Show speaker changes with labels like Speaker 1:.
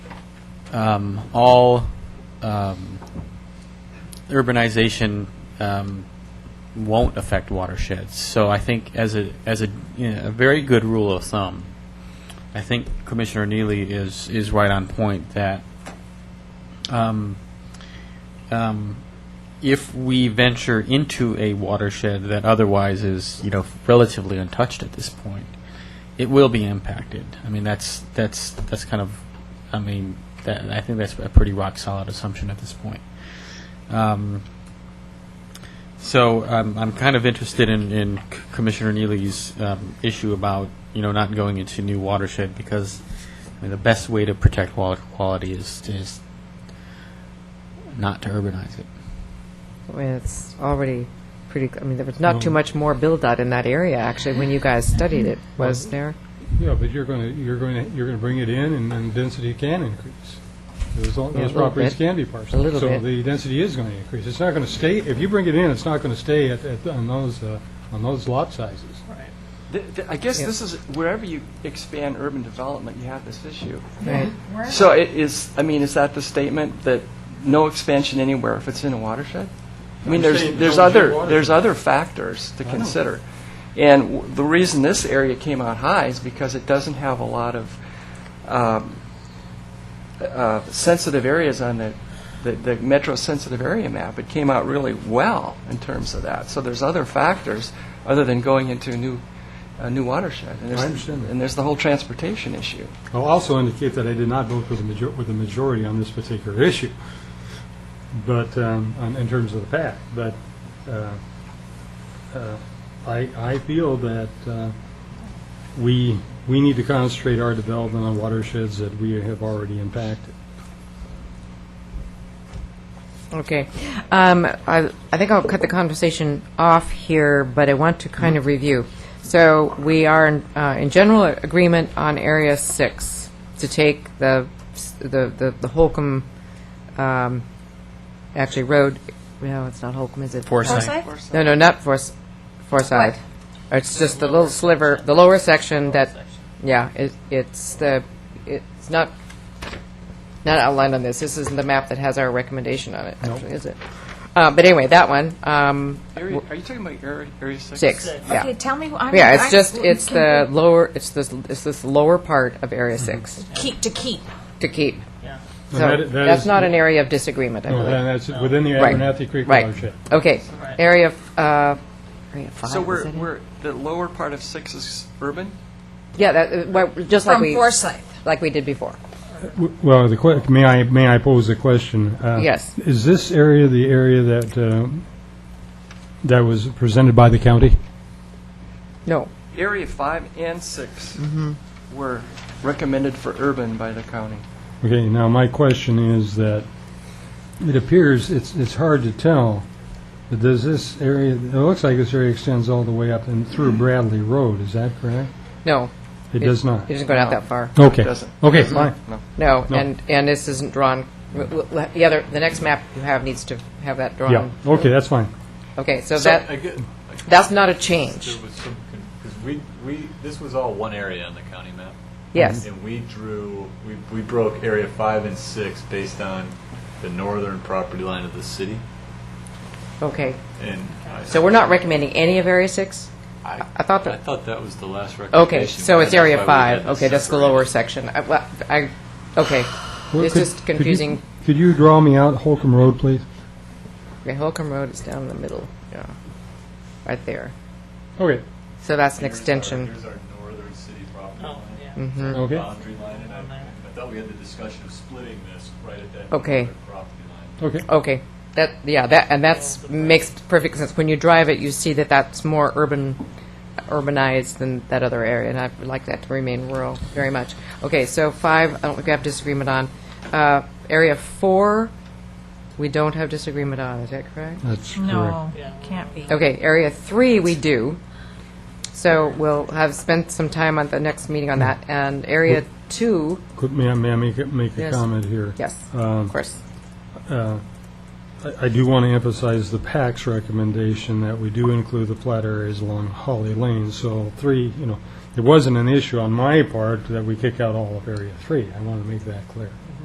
Speaker 1: um, all um, urbanization um, won't affect watersheds. So I think as a, as a, you know, a very good rule of thumb, I think Commissioner Neely is, is right on point that um, um, if we venture into a watershed that otherwise is, you know, relatively untouched at this point, it will be impacted. I mean, that's, that's, that's kind of, I mean, that, I think that's a pretty rock-solid assumption at this point. Um, So um, I'm kind of interested in, in C- Commissioner Neely's um, issue about, you know, not going into new watershed, because, I mean, the best way to protect water quality is, is not to urbanize it.
Speaker 2: I mean, it's already pretty, I mean, there was not too much more build-out in that area, actually, when you guys studied it, was there?
Speaker 3: Yeah, but you're going to, you're going to, you're going to bring it in, and then density can increase. Those, all-
Speaker 2: Yeah, a
Speaker 3: those
Speaker 2: little
Speaker 3: properties
Speaker 2: bit.
Speaker 3: can be parcels.
Speaker 2: A little
Speaker 3: So
Speaker 2: bit.
Speaker 3: the density is going to increase. It's not going to stay, if you bring it in, it's not going to stay at, at, on those, uh, on those lot sizes.
Speaker 4: Th- th- I guess
Speaker 2: Yeah.
Speaker 4: this is, wherever you expand urban development, you have this issue.
Speaker 2: Right.
Speaker 4: So it is, I mean, is that the statement that no expansion anywhere if it's in a watershed? I mean,
Speaker 3: I'm
Speaker 4: there's,
Speaker 3: saying
Speaker 4: there's
Speaker 3: don't do
Speaker 4: other,
Speaker 3: watershed.
Speaker 4: there's other factors to consider. And w- the reason this area came out high is because it doesn't have a lot of um, uh, sensitive areas on the, the- the metro sensitive area map. It came out really well in terms of that. So there's other factors other than going into a new, a new watershed. And there's-
Speaker 3: I understand that.
Speaker 4: And there's the whole transportation issue.
Speaker 3: I'll also indicate that I did not vote for the major, with the majority on this particular issue, but, um, on- in terms of the pact, but, uh, uh, I, I feel that, uh, we, we need to concentrate our development on watersheds that we have already impacted.
Speaker 2: Okay. Um, I, I think I'll cut the conversation off here, but I want to kind of review. So we are in, uh, in general agreement on Area 6 to take the, the, the- the Holcomb, um, actually Road, no, it's not Holcomb, is it?
Speaker 1: Foresight.
Speaker 5: Forsyth?
Speaker 2: No, no, not Forsyth. Forsyth. It's just the little sliver, the lower section that, yeah, it, it's the, it's not, not outlined on this. This isn't the map that has our recommendation on it, actually, is it? Uh, but anyway, that one, um,
Speaker 4: Area, are you talking about Area, area six?
Speaker 2: six, yeah.
Speaker 5: Okay, tell me. I'm,
Speaker 2: Yeah, it's just,
Speaker 5: I'm-
Speaker 2: it's the lower, it's this, it's this lower part of Area Six
Speaker 5: keep to keep.
Speaker 2: to keep. So
Speaker 3: And that- that
Speaker 2: that's
Speaker 3: is-
Speaker 2: not an area of disagreement, I
Speaker 3: No,
Speaker 2: believe.
Speaker 3: then that's within the
Speaker 2: Right.
Speaker 3: Abernathy Creek
Speaker 2: Right.
Speaker 3: watershed.
Speaker 2: Okay, area, f- uh, area five,
Speaker 4: So
Speaker 2: is
Speaker 4: we're,
Speaker 2: it?
Speaker 4: we're, the lower part of six is urban?
Speaker 2: Yeah, that, uh, well, just like
Speaker 5: From
Speaker 2: we,
Speaker 5: Forsyth.
Speaker 2: like we did before.
Speaker 3: W- Well, the que, may I, may I pose a question? Uh,
Speaker 2: Yes.
Speaker 3: Is this area the area that, uh, that was presented by the county?
Speaker 2: No,
Speaker 4: Area five and six
Speaker 2: Mm-hmm.
Speaker 4: were recommended for urban by the county.
Speaker 3: Okay, now my question is that it appears, it's, it's hard to tell, but does this area, it looks like this area extends all the way up and through Bradley Road, is that correct?
Speaker 2: no.
Speaker 3: It does not?
Speaker 2: It doesn't go out that far.
Speaker 3: Okay.
Speaker 4: doesn't.
Speaker 3: Okay, fine.
Speaker 2: No,
Speaker 3: No.
Speaker 2: and, and this isn't drawn, w- w- the other, the next map you have needs to have that
Speaker 3: Yeah,
Speaker 2: drawn.
Speaker 3: okay, that's fine.
Speaker 2: Okay, so
Speaker 6: So,
Speaker 2: that,
Speaker 6: again,
Speaker 2: that's not a change.
Speaker 6: there was some, because we, we, this was all one area on the county map.
Speaker 2: Yes.
Speaker 6: And we drew, we, we broke area five and six based on the northern property line of the city.
Speaker 2: Okay,
Speaker 6: And I,
Speaker 2: so we're not recommending any of Area 6?
Speaker 6: I,
Speaker 2: I thought that-
Speaker 6: I thought that was the last recommendation.
Speaker 2: Okay, so it's Area
Speaker 6: That's why we had
Speaker 2: 5.
Speaker 6: this
Speaker 2: Okay, that's the
Speaker 6: separated.
Speaker 2: lower section. I, well, I, okay.
Speaker 3: Well,
Speaker 2: It's
Speaker 3: could-
Speaker 2: just
Speaker 3: could you-
Speaker 2: confusing.
Speaker 3: Could you draw me out Holcomb Road, please?
Speaker 2: Okay, Holcomb Road is down the middle, yeah, right there.
Speaker 3: Okay.
Speaker 2: So that's an
Speaker 6: Here's our-
Speaker 2: extension.
Speaker 6: Here's our northern city property
Speaker 7: Oh,
Speaker 6: line.
Speaker 7: yeah.
Speaker 3: Okay.
Speaker 4: Mm.
Speaker 6: Boundary line, and I, I thought we had the discussion of splitting this right at that
Speaker 2: Okay.
Speaker 6: northern property line.
Speaker 3: Okay.
Speaker 2: Okay, that, yeah, that, and that's, makes perfect sense. When you drive it, you see that that's more urban, urbanized than that other area, and I would like that to remain rural very much. Okay, so five, I don't think we have disagreement on. Uh, Area four, we don't have disagreement on, is that correct?
Speaker 3: That's correct.
Speaker 5: No, can't be.
Speaker 2: Okay, area three, we do. So we'll have spent some time on the next meeting on that, and area two,
Speaker 3: Could, may I, may I make, a- make a
Speaker 2: Yes.
Speaker 3: comment here?
Speaker 2: yes, of course.
Speaker 3: I, I do want to emphasize the PAC's recommendation that we do include the flat areas along Holly Lane, so three, you know, it wasn't an issue on my part that we kick out all of Area Three. I want to make that clear.